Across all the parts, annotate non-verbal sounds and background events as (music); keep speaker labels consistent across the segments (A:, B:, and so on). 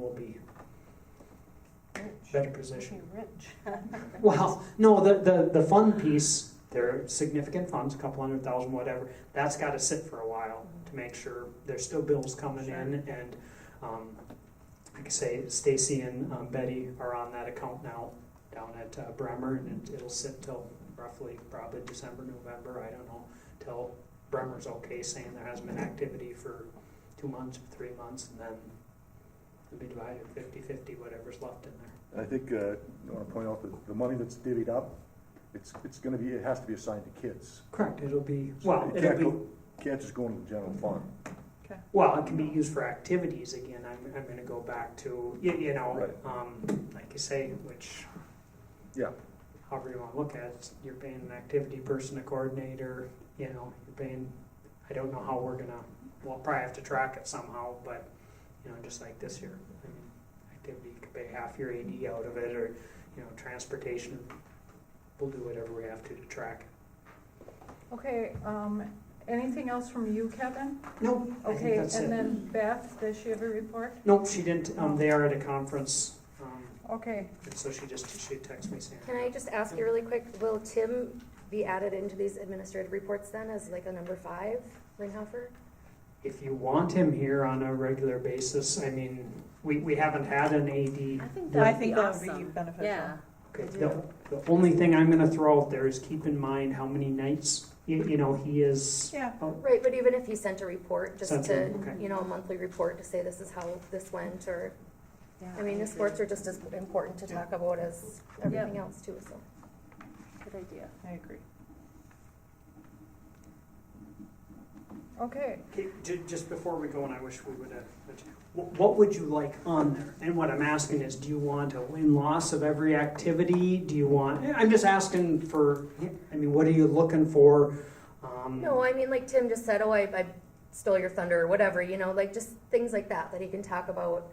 A: will be better positioned.
B: rich.
A: (laughs)
B: (laughs)
A: Well, no, the, the, the fund piece, there are significant funds, a couple hundred thousand, whatever, that's gotta sit for a while to make sure there's still bills coming in and, um, like I say, Stacy and um, Betty are on that account now down at uh, Bremer and it, it'll sit till roughly probably December, November, I don't know, till Bremer's okay saying there hasn't been activity for two months, three months, and then it'll be divided fifty-fifty, whatever's left in there.
C: I think, uh, I wanna point out that the money that's divvied up, it's, it's gonna be, it has to be assigned to kids.
A: Correct, it'll be,
C: So
A: well,
C: it
A: it'll
C: can't
A: be.
C: go- Can't just go into the general fund.
A: Well, it can be used for activities again. I'm, I'm gonna go back to, you, you know,
C: Right.
A: um, like you say, which.
C: Yeah.
A: However you wanna look at it, you're paying an activity person, a coordinator, you know, you're paying, I don't know how we're gonna, we'll probably have to track it somehow, but, you know, just like this year. I mean, Activity, you could pay half your AD out of it, or, you know, transportation, we'll do whatever we have to to track it.
B: Okay, um, anything else from you, Kevin?
A: Nope, I think
B: Okay,
A: that's
B: and
A: it.
B: then Beth, does she have a report?
A: Nope, she didn't, um, they are at a conference, um,
B: Okay,
A: And so she just, she texted me saying.
D: Can I just ask you really quick, will Tim be added into these administrative reports then as like a number five, Ringhoffer?
A: If you want him here on a regular basis, I mean, we, we haven't had an AD.
E: I think
A: I
E: that would be
F: think that would be
E: awesome.
F: beneficial.
E: Yeah.
A: Okay, The the only thing I'm gonna throw out there is keep in mind how many nights, you, you know, he is,
F: Yeah,
D: Right, but even if he sent a report, just
A: Sent
D: to,
A: him, okay.
D: you know, a monthly report to say this is how this went, or, I mean, the sports are just as important to talk about as everything else too, so.
E: Good idea.
F: I agree.
B: okay.
A: Okay, ju- just before we go, and I wish we would have, what, what would you like on there? And what I'm asking is, do you want a win-loss of every activity? Do you want, I'm just asking for, I mean, what are you looking for? Um,
D: No, I mean, like Tim just said, oh, I, I stole your thunder or whatever, you know, like just things like that, that he can talk about,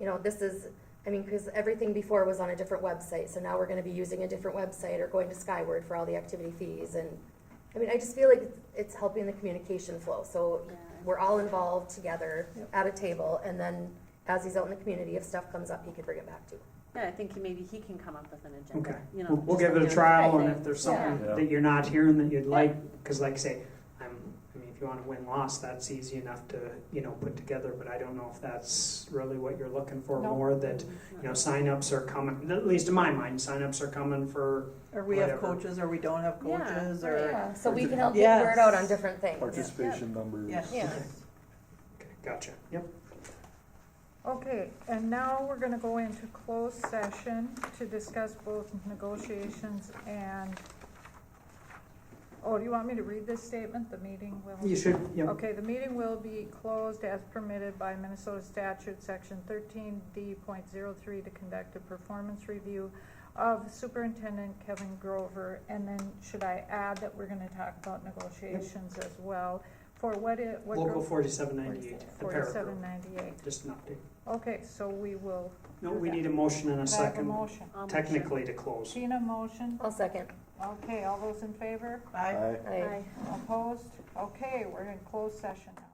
D: you know, this is, I mean, because everything before was on a different website, so now we're gonna be using a different website or going to Skyward for all the activity fees and, I mean, I just feel like it's helping the communication flow, so we're all involved together
F: Yep.
D: at a table, and then as he's out in the community, if stuff comes up, he can bring it back to.
E: Yeah, I think he- maybe he can come up with an
A: Okay,
E: agenda, you know.
A: we'll, we'll
E: just
A: give it a
E: like
A: trial,
E: doing
A: and
E: the
A: if there's
E: thing.
A: something
C: Yeah.
A: that you're not hearing that you'd like, because like I say, I'm, I mean, if you want to win loss, that's easy enough to you know put together. But I don't know if that's really what you're looking for
B: No.
A: more. That you know, signups are coming. At least in my mind, signups are coming for
F: Or we have
A: Whatever.
F: coaches, or we don't have
E: Yeah,
F: coaches,
E: right.
F: or,
D: Oh, Yeah, so we can help
F: help
D: get the
F: get the
D: word
F: Yes.
D: out on different things.
C: Participation numbers.
F: yeah.
D: Yeah.
A: okay, gotcha. Yep.
B: Okay, and now we're gonna go into closed session to discuss both negotiations and, oh, do you want me to read this statement? The meeting will.
A: You should. Yep.
B: Okay, the meeting will be closed as permitted by Minnesota statute, section thirteen D point zero three, to conduct a performance review of Superintendent Kevin Grover, and then should I add that we're gonna talk about negotiations as well? For what it, what
A: Local
B: group?
A: forty-seven ninety-eight. The paragraph.
B: Forty-seven ninety-eight.
A: Just an update.
B: Okay, so we will,
A: No, we need a motion and a
B: could I have a
A: second,
B: motion?
E: I'll make sure.
A: technically to close.
B: Sheena, motion.
D: I'll second.
B: Okay, all those in favor?
F: I,
C: Aye.
D: I-
B: Opposed? Okay, we're in closed session now.